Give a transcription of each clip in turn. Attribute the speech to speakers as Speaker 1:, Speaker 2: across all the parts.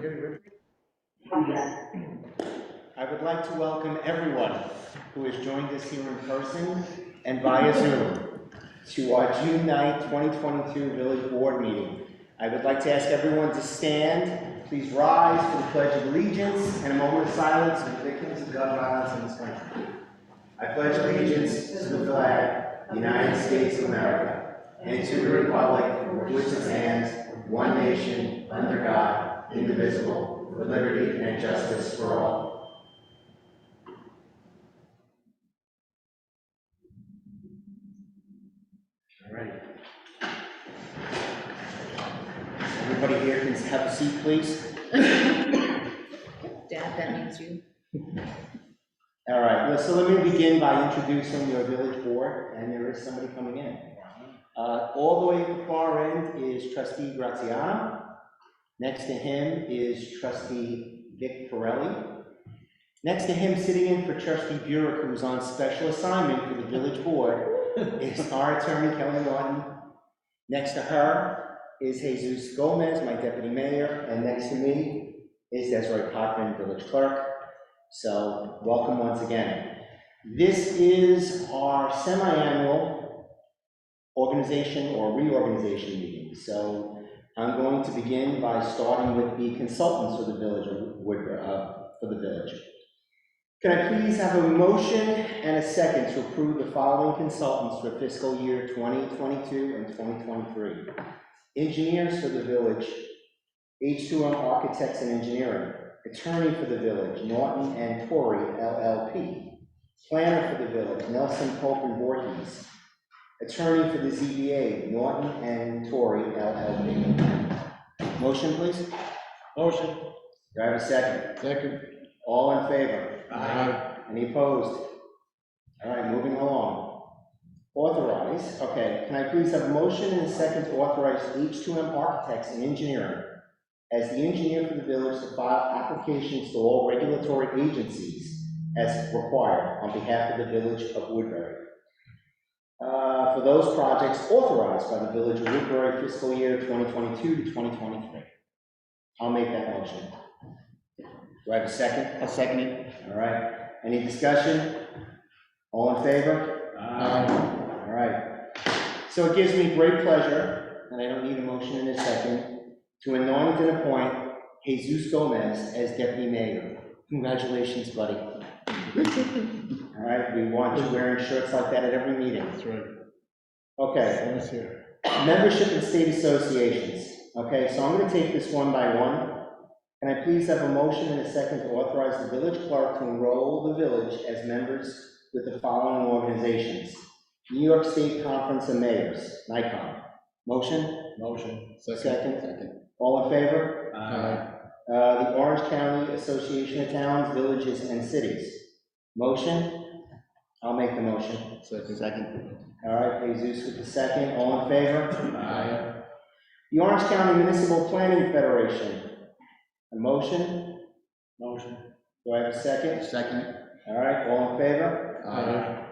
Speaker 1: Gary Ritchie? I would like to welcome everyone who has joined us here in person and via Zoom to our June 9, 2022 Village Board meeting. I would like to ask everyone to stand, please rise for the Pledge of Allegiance and a moment of silence for the victims of gun violence in this country. I pledge allegiance to the flag, of the United States of America, and to the republic for which it stands, one nation, under God, indivisible, with liberty and justice for all. All right. Everybody here can have a seat, please.
Speaker 2: Dad, that means you.
Speaker 1: All right, well, so let me begin by introducing your village board, and there is somebody coming in. Uh, All the way at the far end is trustee Graziano. Next to him is trustee Vic Pirelli. Next to him, sitting in for trustee Burek, who's on special assignment for the village board, is our attorney Kelly Norton. Next to her is Jesus Gomez, my deputy mayor, and next to me is Desiree Potvin, village clerk. So welcome once again. This is our semi-annual organization or reorganization meeting. So I'm going to begin by starting with the consultants for the village, of Woodbury, uh, for the village. Can I please have a motion and a second to approve the following consultants for fiscal year 2022 and 2023? Engineers for the village, H2M Architects and Engineering. Attorney for the village, Norton and Torrey LLP. Planner for the village, Nelson Pope and Voorhees. Attorney for the ZBA, Norton and Torrey LLP. Motion, please?
Speaker 3: Motion.
Speaker 1: Do I have a second?
Speaker 3: Second.
Speaker 1: All in favor?
Speaker 3: Aye.
Speaker 1: Any opposed? All right, moving along. Authorize, okay, can I please have a motion and a second to authorize H2M Architects and Engineering as the engineer for the village to file applications to all regulatory agencies as required on behalf of the village of Woodbury. Uh, for those projects authorized by the village of Woodbury fiscal year 2022 to 2023. I'll make that motion. Do I have a second? I'll second it. All right, any discussion? All in favor? All right. So it gives me great pleasure, and I don't need a motion in a second, to anoint and appoint Jesus Gomez as deputy mayor. Congratulations, buddy. All right, we want you wearing shirts like that at every meeting.
Speaker 3: That's right.
Speaker 1: Okay,
Speaker 3: That's here.
Speaker 1: membership in state associations. Okay, so I'm gonna take this one by one. Can I please have a motion and a second to authorize the village clerk to enroll the village as members with the following organizations? New York State Conference of Mayors, NICOM. Motion?
Speaker 3: Motion.
Speaker 1: Second. All in favor?
Speaker 3: Aye.
Speaker 1: Uh, the Orange County Association of Towns, Villages, and Cities. Motion? I'll make the motion.
Speaker 3: Second. Second.
Speaker 1: All right, Jesus with the second. All in favor?
Speaker 3: Aye.
Speaker 1: The Orange County Municipal Planning Federation. A motion?
Speaker 3: Motion.
Speaker 1: Do I have a second?
Speaker 3: Second.
Speaker 1: All right, all in favor?
Speaker 3: Aye.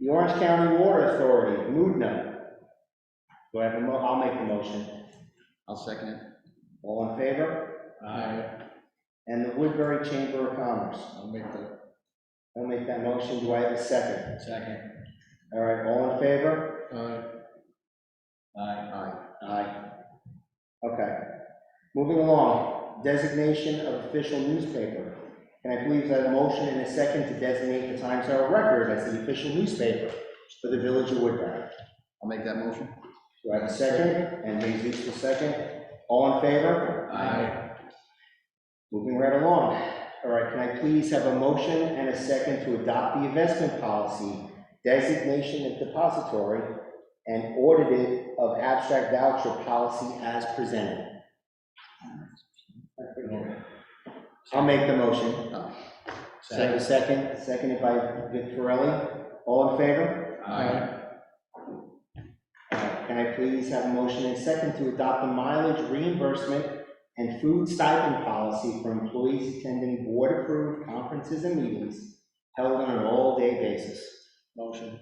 Speaker 1: The Orange County Water Authority, Mudna. Do I have a mo, I'll make the motion.
Speaker 3: I'll second it.
Speaker 1: All in favor?
Speaker 3: Aye.
Speaker 1: And the Woodbury Chamber of Commerce.
Speaker 3: I'll make the
Speaker 1: I'll make that motion. Do I have a second?
Speaker 3: second.
Speaker 1: All right, all in favor?
Speaker 3: Aye. Aye.
Speaker 1: Aye. Okay. Moving along, designation of official newspaper. Can I please have a motion and a second to designate the Times Herald Record as the official newspaper for the village of Woodbury?
Speaker 3: I'll make that motion.
Speaker 1: Do I have a second? And Jesus will second. All in favor?
Speaker 3: Aye.
Speaker 1: Moving right along. All right, can I please have a motion and a second to adopt the investment policy, designation of depository, and audited of abstract voucher policy as presented? I'll make the motion. Second, second, seconded by Vic Firelli. All in favor?
Speaker 3: Aye.
Speaker 1: All right, Can I please have a motion and second to adopt the mileage reimbursement and food stipend policy for employees attending board-approved conferences and meetings held on an all-day basis?
Speaker 3: Motion.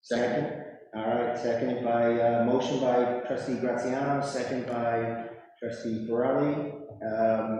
Speaker 1: Second? All right, seconded by, uh, motion by trustee Graziano, second by trustee Borelli. Um,